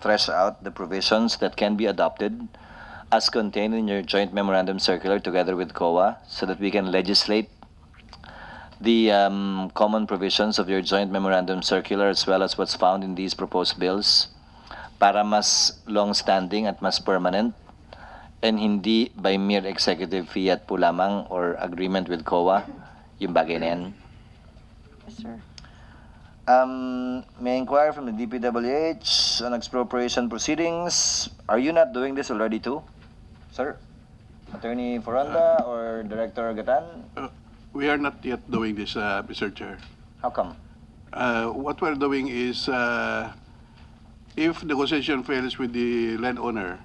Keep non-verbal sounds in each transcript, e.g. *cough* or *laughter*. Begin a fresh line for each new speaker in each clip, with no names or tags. thresh out the provisions that can be adopted as contained in your joint memorandum circular together with COA so that we can legislate the um, common provisions of your joint memorandum circular as well as what's found in these proposed bills para mas long-standing at mas permanent and hindi by mere executive fiat po lamang or agreement with COA yung bagay na yan.
Yes, sir.
Um, may I inquire from the DPWH on expropriation proceedings. Are you not doing this already too, sir? Attorney Foranda or Director Gatan?
Uh, We are not yet doing this, uh, Mr. Chair.
How come?
Uh, What we're doing is, uh, if the concession fails with the landowner,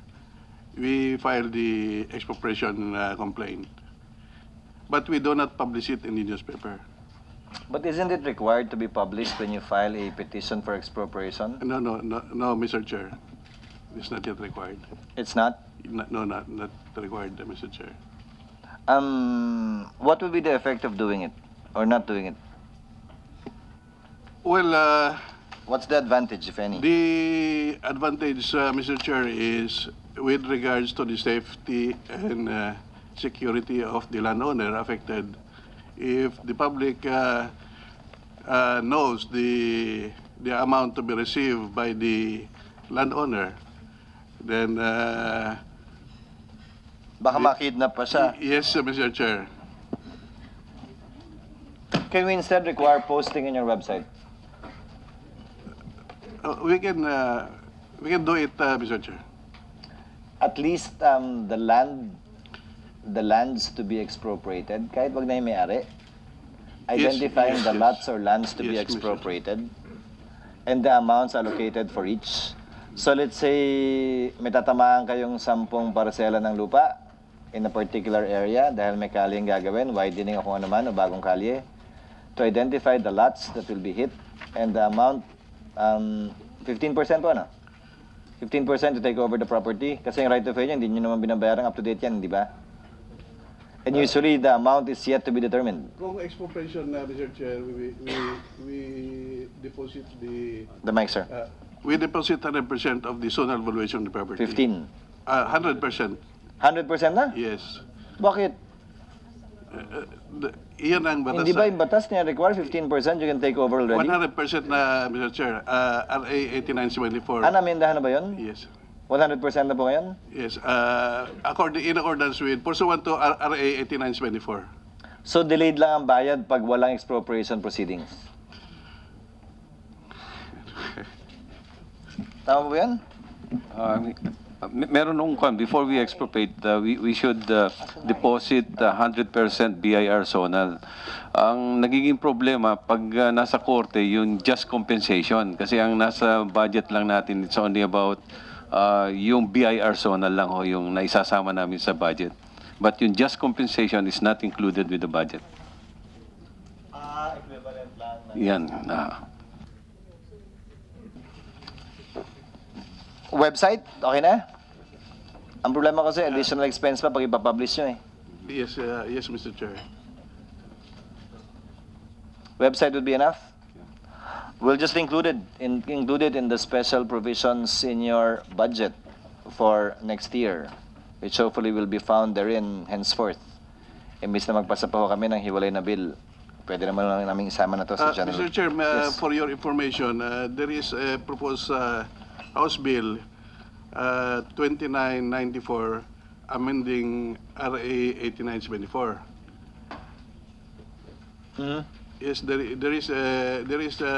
we file the expropriation uh, complaint. But we do not publish it in the newspaper.
But isn't it required to be published when you file a petition for expropriation?
No, no, no, no, Mr. Chair. It's not yet required.
It's not.
No, no, not not required, Mr. Chair.
Um, what would be the effect of doing it or not doing it?
Well, uh,
What's the advantage, if any?
The advantage, uh, Mr. Chair, is with regards to the safety and uh, security of the landowner affected. If the public uh, uh, knows the the amount to be received by the landowner, then uh,
Baka makidnap pa siya.
yes, uh, Mr. Chair.
Can we instead require posting in your website?
Uh, we can uh, we can do it, uh, Mr. Chair.
At least um, the land, the lands to be expropriated, kahit wag na yung may-ari,
Yes,
identifying
yes,
the
yes.
lots or lands to be
Yes, Commissioner.
expropriated and the amounts allocated for each. So let's say may tatamaan kayong sampung parsela ng lupa in a particular area dahil may kalyeng gagawin, widening o kung ano man o bagong kalye, to identify the lots that will be hit and the amount, um, 15% po ano? 15% to take over the property kasi yung right of way niya, hindi nyo naman binabayaran up to date yan, di ba? And usually the amount is yet to be determined.
Kung expropriation, uh, Mr. Chair, we, we, we deposit the
The mic, sir.
Uh, We deposit hundred percent of the zonal valuation of the property. Uh,
15.
Hundred percent,
100% na?
yes.
Bakit?
The- Iyan ang batas.
Hindi ba yung batas niya require 15% you can take over already?
One hundred percent na, Mr. Chair, uh, RA eighty-nine seventy-four.
Ano, amendahan na ba yun?
Yes,
100% na po ngayon?
yes, uh, according, in accordance with pursuant to R- RA eighty-nine seventy-four.
So delayed lang ang bayad pag walang expropriation
*laughs*
proceedings. Tama po ba yan?
Uh, me- Meron nung kwan, before we expropriate, uh, we, we should uh, deposit uh, 100% BIR zonal. Ang nagiging problema, pag uh, nasa korte, yung just compensation. Kasi ang nasa budget lang natin, it's only about uh, yung BIR zonal lang ho, yung naisasama namin sa budget. But yung just compensation is not included with the budget. Yan. ah.
Website? Okay na? Ang problema kasi additional expense pa pag ipapublish nyo eh.
Yes, uh, yes, Mr. Chair.
Website would be enough? We'll just include it, in, include it in the special provisions in your budget for next year, which hopefully will be found therein henceforth. Imbis na magpasa pa ho kami ng hiwalay na bill, pwede naman lang namin isama na to
Uh,
sa general.
Mr. Chair, ma-
Yes.
for your information, uh, there is a proposed uh, House Bill uh, 2994 amending RA 8974.
Mhm.
Yes, there i- there is a, there is a,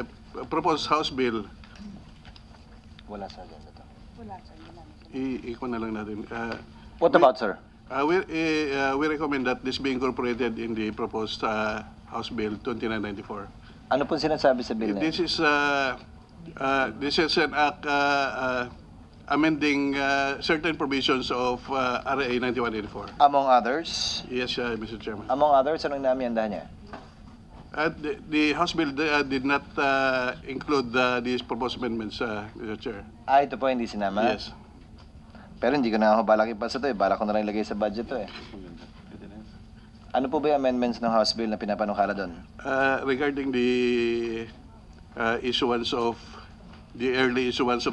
a proposed House Bill.
Wala sa agenda to.
I- Iko na lang natin. Uh,
What
we-
about, sir?
Uh, we, eh, uh, we recommend that this be incorporated in the proposed uh, House Bill 2994.
Ano po sinasabi sa bill na
This
yun?
is, uh, uh, this is an act uh, uh, amending uh, certain provisions of uh, RA 9184.
Among others,
Yes, uh, Mr. Chairman.
among others, anong inaamiandahan niya?
Uh, the, the House Bill uh, did not uh, include uh, these proposed amendments, uh, Mr. Chair.
Ah, ito po hindi sinama?
Yes.
Pero hindi ko na ako balak ipasa to eh. Balak ko na lang ilagay sa budget to eh. Ano po ba yung amendments ng House Bill na pinapanukala doon?
Uh, regarding the uh, issuance of the early issuance of